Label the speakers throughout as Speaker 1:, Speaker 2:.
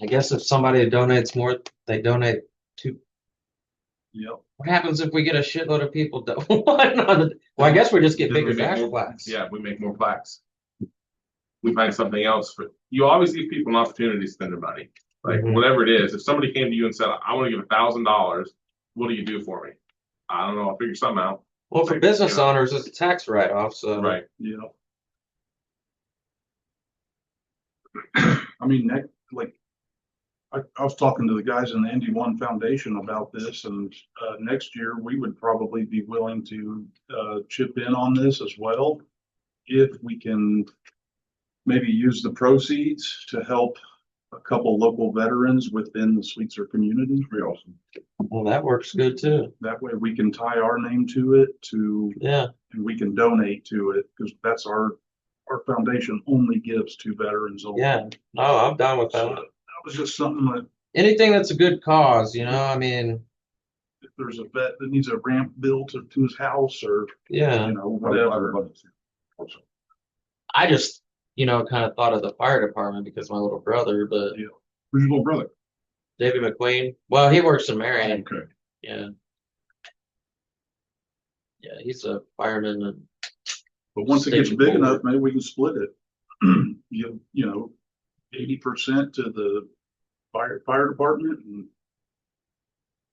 Speaker 1: I guess if somebody donates more, they donate.
Speaker 2: Yep.
Speaker 1: What happens if we get a shitload of people? do- Well, I guess we just get
Speaker 2: Then we
Speaker 1: bigger
Speaker 2: make
Speaker 1: dash
Speaker 2: more-
Speaker 1: plaques.
Speaker 2: Yeah, we make more plaques. We find something else for, you always give people an opportunity to spend their money. Like
Speaker 1: Mhm.
Speaker 2: whatever it is, if somebody came to you and said, I want to give a thousand dollars, what do you do for me? I don't know, I'll figure something out.
Speaker 1: Well, for
Speaker 2: Like,
Speaker 1: business
Speaker 2: yeah.
Speaker 1: owners, it's a tax write-off, so.
Speaker 2: Right.
Speaker 3: Yeah. I mean, that, like, I, I was talking to the guys in the Indy One Foundation about this and, uh, next year we would probably be willing to, uh, chip in on this as well. If we can maybe use the proceeds to help a couple local veterans within the Sweetser community.
Speaker 1: Well, that works good too.
Speaker 3: That way we can tie our name to it, to
Speaker 1: Yeah,
Speaker 3: and we can donate to it because that's our, our foundation only gives to veterans. only.
Speaker 1: yeah. No, I'm down with
Speaker 3: So
Speaker 1: that.
Speaker 3: That was just something that
Speaker 1: Anything that's a good cause, you know, I mean,
Speaker 3: if there's a vet that needs a ramp built to to his house or,
Speaker 1: yeah.
Speaker 3: you know, whatever.
Speaker 1: I just, you know, kind of thought of the fire department because my little brother, but
Speaker 2: Who's your little brother?
Speaker 1: David McQueen, well, he works in Marion. Yeah. Yeah, he's a fireman and
Speaker 3: But once it gets
Speaker 1: Station
Speaker 3: big
Speaker 1: forward.
Speaker 3: enough, maybe we can split it. You, you know, eighty percent to the fire, fire department and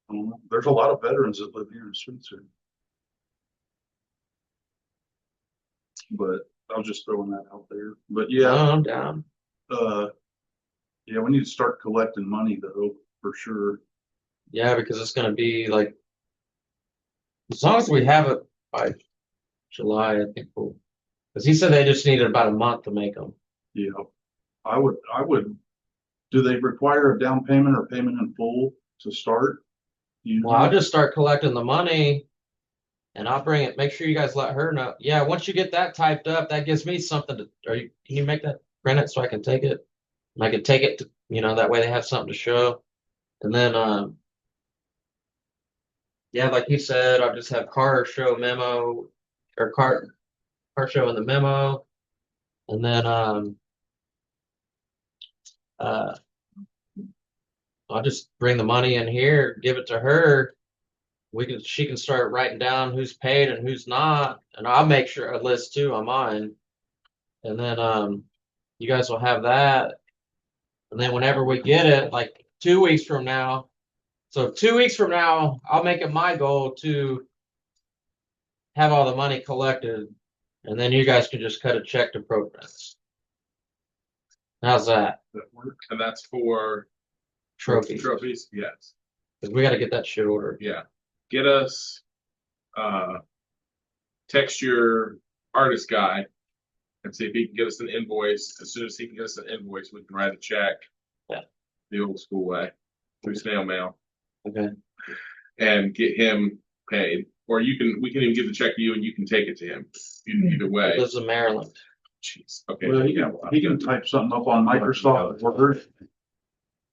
Speaker 3: I don't know. there's a lot of veterans that live here in Sweetser. But I was just throwing that out there. But yeah,
Speaker 1: No, oh, I'm down.
Speaker 3: uh, yeah, we need to start collecting money though, for sure.
Speaker 1: Yeah, because it's gonna be like as long as we have it by July, I think we'll. Because he said they just needed about a month to make them.
Speaker 3: Yeah, I would, I would, do they require a down payment or payment in full to start? Do You
Speaker 1: Well, I'll just start collecting the money, and I'll bring it. Make sure you guys let her know. Yeah, once you get that typed up, that gives me something to. Are you? Can you make that print it so I can take it? And I can take it to you know that way they have something to show, and then um. Yeah, like you said, I'll just have car show memo, or car, car show in the memo, and then um. Uh, I'll just bring the money in here, give it to her. We can, she can start writing down who's paid and who's not, and I'll make sure a list too on mine. And then, um, you guys will have that. And then whenever we get it, like two weeks from now, so two weeks from now, I'll make it my goal to have all the money collected, and then you guys can just cut a check to programs. How's that
Speaker 3: That work?
Speaker 2: And that's for
Speaker 1: trophy?
Speaker 2: Trophies, yes,
Speaker 1: 'Cause we got to get that shit ordered.
Speaker 2: yeah. Get us, uh, text your artist guy and see if he can get us an invoice. As soon as he can get us an invoice, we can write a check.
Speaker 1: Yeah.
Speaker 2: The old school way, through snail mail.
Speaker 1: Okay.
Speaker 2: and get him paid. Or you can, we can even give the check to you and you can take it to him. Either either way.
Speaker 1: Lives in Maryland.
Speaker 2: Jeez, okay.
Speaker 3: Well, he can, he can type something up on Microsoft Word.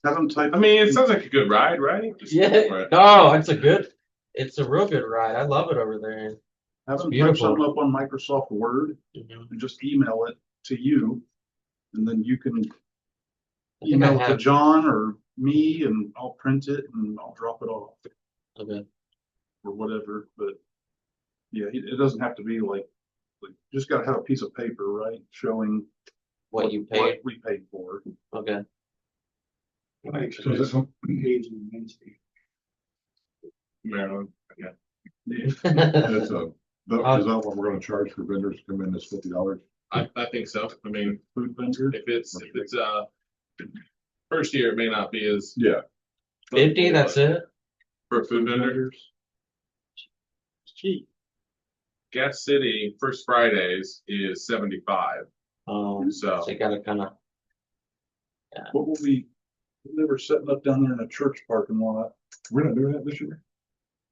Speaker 3: Have him type.
Speaker 2: I mean, it sounds like a good ride, right? Just go for
Speaker 1: Yeah.
Speaker 2: it.
Speaker 1: No, it's a good. It's a real good ride. I love it over there.
Speaker 3: Have them type
Speaker 1: Beautiful.
Speaker 3: something up on Microsoft Word and just email it to you. And then you can
Speaker 1: I think I
Speaker 3: email it to
Speaker 1: have.
Speaker 3: John or me and I'll print it and I'll drop it off
Speaker 1: Okay.
Speaker 3: or whatever, but. Yeah, it, it doesn't have to be like, like, just gotta have a piece of paper, right, showing.
Speaker 1: What you paid.
Speaker 3: We paid for.
Speaker 1: Okay.
Speaker 2: Maryland, yeah.
Speaker 1: That's
Speaker 4: That's a,
Speaker 1: Uh,
Speaker 4: that, is that what we're gonna charge for vendors to come in is fifty dollars?
Speaker 2: I, I think so. I mean,
Speaker 3: Food vendor,
Speaker 2: if it's, if it's, uh, first year, it may not be as.
Speaker 4: Yeah.
Speaker 1: Fifty. That's it.
Speaker 2: For a food vendor,
Speaker 3: cheap.
Speaker 2: Gas City, first Fridays is seventy-five,
Speaker 1: Um,
Speaker 2: so.
Speaker 1: so you gotta kind of.
Speaker 3: What will we, they were setting up down there in a church parking lot.
Speaker 4: We're not doing that this year?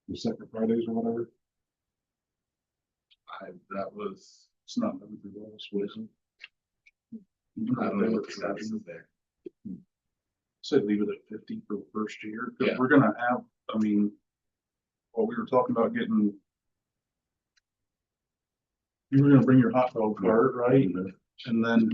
Speaker 4: The second Fridays or whatever?
Speaker 2: I, that was,
Speaker 3: It's not. gonna be well, it's wasted.
Speaker 2: I don't know what the status is there.
Speaker 3: Say leave it at fifty for the first year, 'cause
Speaker 2: Yeah.
Speaker 3: we're gonna have, I mean. Well, we were talking about getting.
Speaker 2: Mm-hmm.
Speaker 3: You were gonna bring your hot dog cart, right? And then